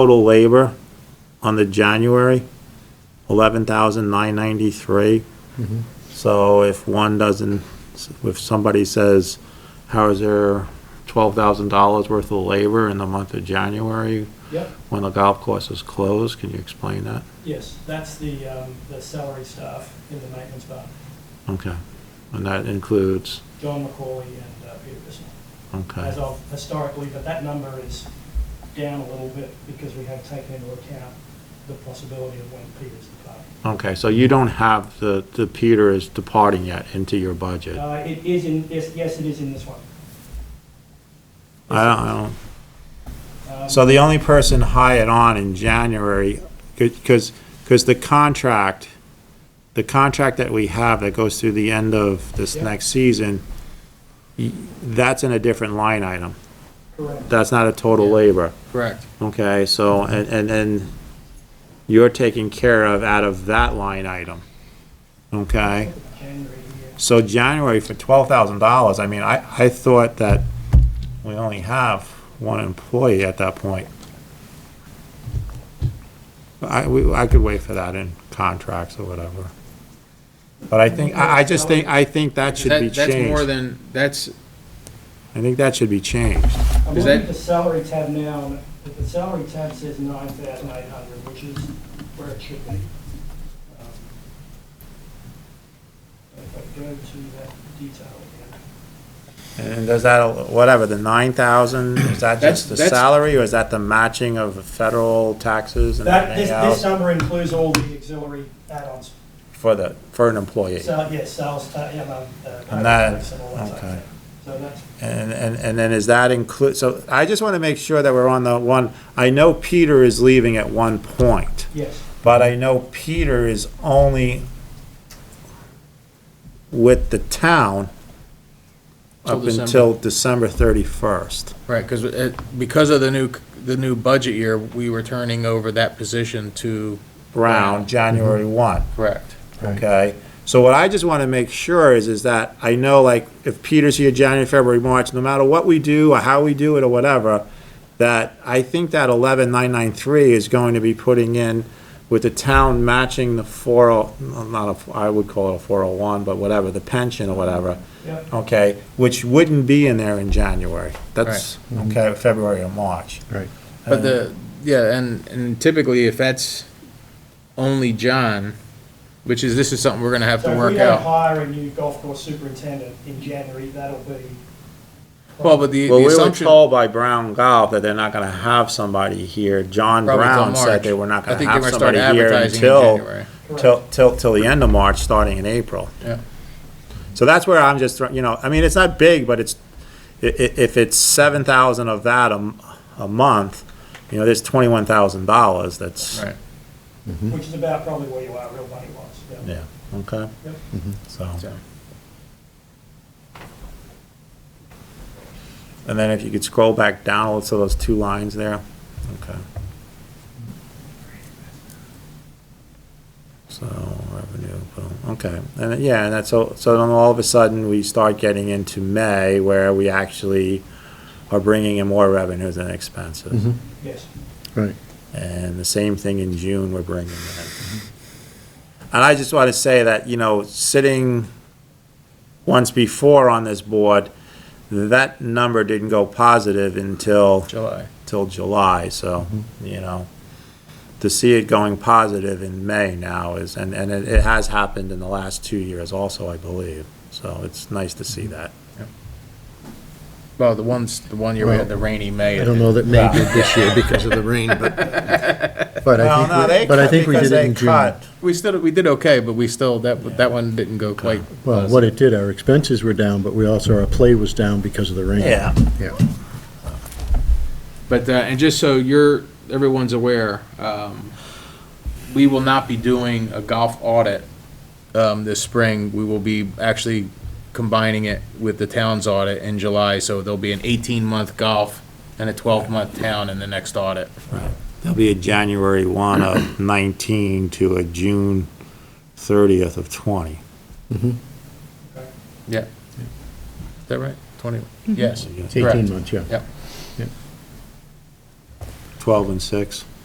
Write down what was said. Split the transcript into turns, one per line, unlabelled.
total labor on the January, eleven thousand nine ninety-three. So if one doesn't, if somebody says, how is there twelve thousand dollars worth of labor in the month of January
Yep,
when the golf course is closed, can you explain that?
yes, that's the, um, the salary staff in the maintenance bar,
Okay, and that includes,
John McCauley and uh, Peter Bissell,
okay,
as of historically, but that number is down a little bit because we have taken into account the possibility of when Peter's departing.
okay, so you don't have the, the Peter is departing yet into your budget? I
Uh, it is in, yes, yes, it is in this one.
don't, I don't,
Um,
So the only person hired on in January, because, because the contract, the contract that we have that goes through the end of this
Yeah.
next season, y- that's in a different line item.
Correct,
That's not a total labor,
Correct.
okay? So, and, and then you're taken care of out of that line item, okay?
January, yeah.
So January for twelve thousand dollars, I mean, I, I thought that we only have one employee at that point. I, we, I could wait for that in contracts or whatever. But I think, I, I just think, I think that should be
That, that's more
changed.
than, that's,
I think that should be changed.
I'm
Is
looking
that-
at the salary tab now, and if the salary tab says nine thousand eight hundred, which is where it should be. Um, If I go to that detail again.
And does that, whatever, the nine thousand, is that
That's-
just the
that's-
salary or is that the matching of federal taxes and
That, this,
everything else?
this number includes all the auxiliary add-ons,
For the, for an employee?
so, yes, sales, ta- yeah, um, uh.
And that-
tax and all that type of
okay.
thing. So that's,
And, and, and then is that include, so I just want to make sure that we're on the one, I know Peter is leaving at one point,
yes,
but I know Peter is only with the town
Till
up
December.
until December thirty-first.
right, because, because of the new, the new budget year, we were turning over that position to.
Brown, January
Mm-hmm.
one,
Correct.
okay? So what I just want to make sure is, is that I know like if Peter's here January, February, March, no matter what we do or how we do it or whatever, that I think that eleven nine nine three is going to be putting in with the town matching the four oh, not a, f- I would call it a four oh one, but whatever, the pension or whatever,
yep,
okay, which wouldn't be in there in January. That's, okay, February or March.
Right.
But the, yeah, and, and typically if that's only John, which is, this is something we're gonna have
so
to
if we
work
don't
out.
hire a new golf course superintendent in January, that'll be.
Well, but the,
Well,
the
we were
assumption.
told by Brown Golf that they're not gonna have somebody here. John
Probably till
Brown said
March.
they were not
I
gonna
think they
have
were start
somebody here
advertising in
until,
January.
Correct.
till, till, till the end of March, starting in April.
Yeah.
So that's where I'm just, throw- you know, I mean, it's not big, but it's, i- i- if it's seven thousand of that a, m- a month, you know, there's twenty-one thousand dollars that's,
Right,
Which is about probably where you are real money wise, yeah.
yeah, okay? Mm-hmm.
Yep.
So,
so,
and then if you could scroll back down, so those two lines there, okay. So revenue, boom, okay, and then- yeah, and that's, so, so then all of a sudden, we start getting into May where we actually are bringing in more revenues than expenses.
Yes,
Right.
And the same thing in June we're bringing in. And I just want to say that, you know, sitting once before on this board, that number didn't go positive until,
July.
till July, so, you know. To see it going positive in May now is, and, and it, it has happened in the last two years also, I believe. So it's nice to see that.
Well, the ones, the one year we had the rainy May.
I don't know that May did this year because of the rain, but, but I think, we- but I think we did it in June.
We still, we did okay, but we still, that, that one didn't go quite.
Well, what it did, our expenses were down, but we also, our play was down because of the rain.
Yeah.
Yeah.
But, uh, and just so you're, everyone's aware, um, we will not be doing a golf audit, um, this spring. We will be actually combining it with the town's audit in July, so there'll be an eighteen-month golf and a twelve-month town in the next audit.
There'll be a January one of nineteen to a June thirtieth of twenty.
Yeah. Is that right? Twenty, yes.
It's 18 months, yeah.
Yep.
twelve and six.